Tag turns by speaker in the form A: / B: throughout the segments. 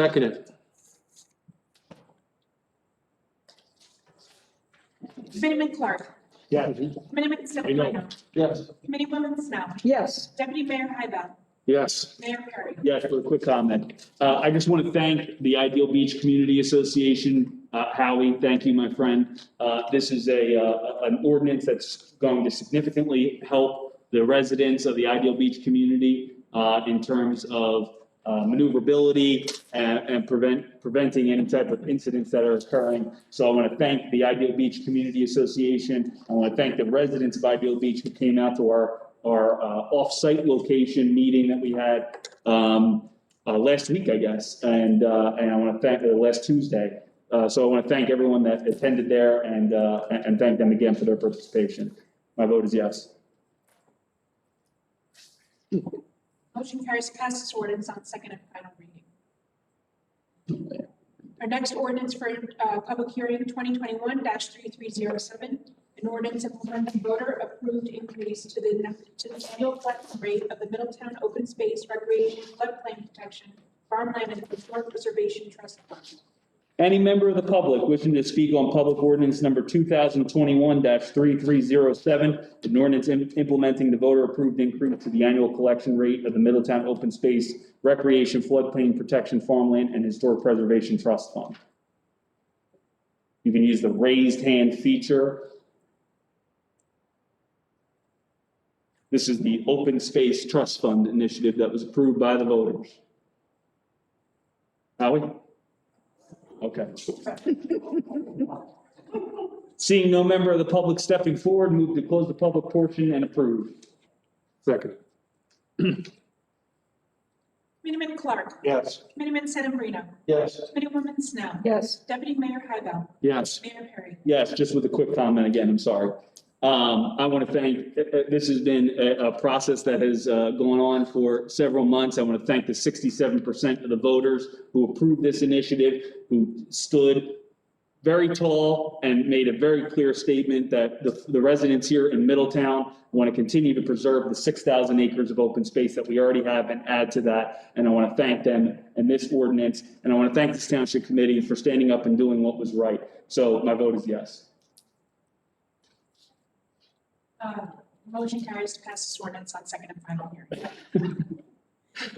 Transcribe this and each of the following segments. A: Seconded.
B: Committeeman Clark.
A: Yes.
B: Committeeman Stepanino.
A: Yes.
B: Committeewoman Snow.
C: Yes,
B: Deputy Mayor Hybel.
A: Yes.
B: Mayor Perry.
D: Yes, for a quick comment. Uh, I just want to thank the Ideal Beach Community Association. Uh, Howie, thank you, my friend. Uh, this is a, uh, an ordinance that's going to significantly help the residents of the Ideal Beach community, uh, in terms of, uh, maneuverability and, and prevent, preventing any type of incidents that are occurring. So I want to thank the Ideal Beach Community Association. I want to thank the residents of Ideal Beach who came out to our, our, uh, off-site location meeting that we had um, uh, last week, I guess, and, uh, and I want to thank, uh, last Tuesday. Uh, so I want to thank everyone that attended there and, uh, and and thank them again for their participation. My vote is yes.
B: Motion carries to pass this ordinance on second and final reading. Our next ordinance for uh, public hearing, 2021-3307, an ordinance implementing voter-approved increase to the to the annual collection rate of the Middletown Open Space Recreation Floodplain Protection Farmland and Historic Preservation Trust Fund.
D: Any member of the public wishing to speak on public ordinance number two thousand twenty-one three three zero seven, an ordinance im- implementing the voter-approved increase to the annual collection rate of the Middletown Open Space Recreation Floodplain Protection Farmland and Historic Preservation Trust Fund. You can use the raised hand feature. This is the Open Space Trust Fund initiative that was approved by the voters. Howie? Okay. Seeing no member of the public stepping forward, move to close the public portion and approve.
A: Seconded.
B: Committeeman Clark.
A: Yes.
B: Committeeman Sedambrino.
A: Yes.
B: Committeewoman Snow.
C: yes,
B: Deputy Mayor Hybel.
A: Yes.
B: Mayor Perry.
D: Yes, just with a quick comment again, I'm sorry. Um, I want to thank, uh, uh, this has been a, a process that has, uh, gone on for several months. I want to thank the sixty-seven percent of the voters who approved this initiative, who stood very tall and made a very clear statement that the, the residents here in Middletown want to continue to preserve the six thousand acres of open space that we already have and add to that. And I want to thank them and this ordinance, and I want to thank this township committee for standing up and doing what was right. So my vote is yes.
B: Uh, Motion carries to pass this ordinance on second and final hearing.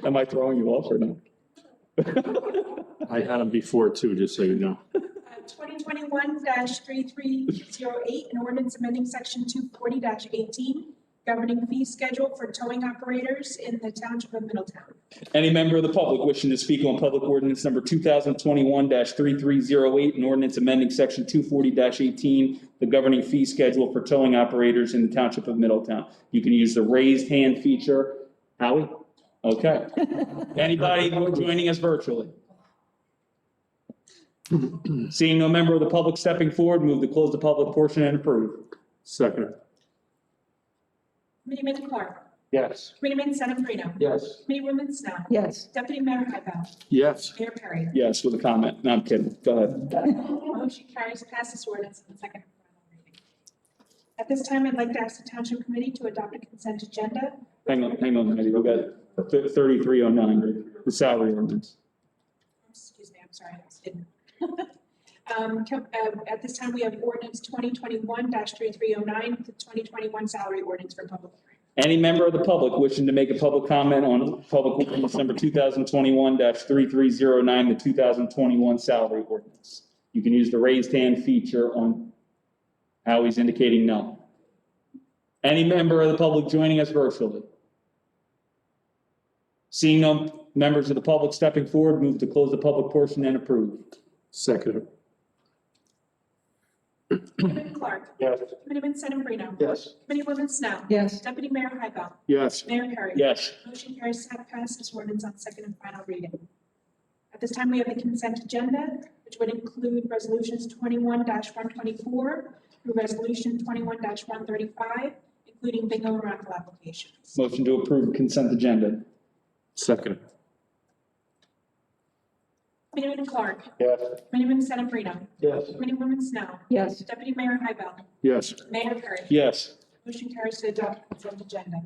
D: Am I throwing you off or not?
A: I had them before too, just so you know.
B: Uh, Twenty twenty-one three three zero eight, an ordinance amending section two forty eighteen, governing fee schedule for towing operators in the township of Middletown.
D: Any member of the public wishing to speak on public ordinance number two thousand twenty-one three three zero eight, an ordinance amending section two forty eighteen, the governing fee schedule for towing operators in the township of Middletown. You can use the raised hand feature. Howie? Okay. Anybody who are joining us virtually? Seeing no member of the public stepping forward, move to close the public portion and approve.
A: Seconded.
B: Committeeman Clark.
A: Yes.
B: Committeeman Sedambrino.
A: Yes.
B: Committeewoman Snow.
C: yes,
B: Deputy Mayor Hybel.
A: Yes.
B: Mayor Perry.
D: Yes, with a comment. No, I'm kidding. Go ahead.
B: Motion carries to pass this ordinance on second and final reading. At this time, I'd like to ask the township committee to adopt a consent agenda.
D: Hang on, hang on, Heidi, we got thirty-three oh nine, the salary ordinance.
B: Excuse me, I'm sorry, I was hidden. Um, co- uh, At this time, we have ordinance 2021-3309, the 2021 salary ordinance for public hearing.
D: Any member of the public wishing to make a public comment on public ordinance number two thousand twenty-one three-three-zero-nine, the two thousand twenty-one salary ordinance. You can use the raised hand feature on how he's indicating no. Any member of the public joining us virtually? Seeing no members of the public stepping forward, move to close the public portion and approve.
A: Seconded.
B: Committeeman Clark.
A: Yes.
B: Committeeman Sedambrino.
A: Yes.
B: Committeewoman Snow.
C: yes,
B: Deputy Mayor Hybel.
A: Yes.
B: Mayor Perry.
D: Yes.
B: Motion carries to pass this ordinance on second and final reading. At this time, we have the consent agenda, which would include resolutions twenty-one one twenty-four through resolution twenty-one one thirty-five, including bingo and raffle applications.
D: Motion to approve consent agenda.
A: Seconded.
B: Committeeman Clark.
A: Yes.
B: Committeeman Sedambrino.
A: Yes.
B: Committeewoman Snow.
C: yes,
B: Deputy Mayor Hybel.
A: Yes.
B: Mayor Perry.
D: Yes.
B: Motion carries to adopt consent agenda.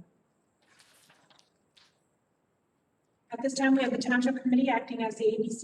B: At this time, we have the Township Committee acting as the ABC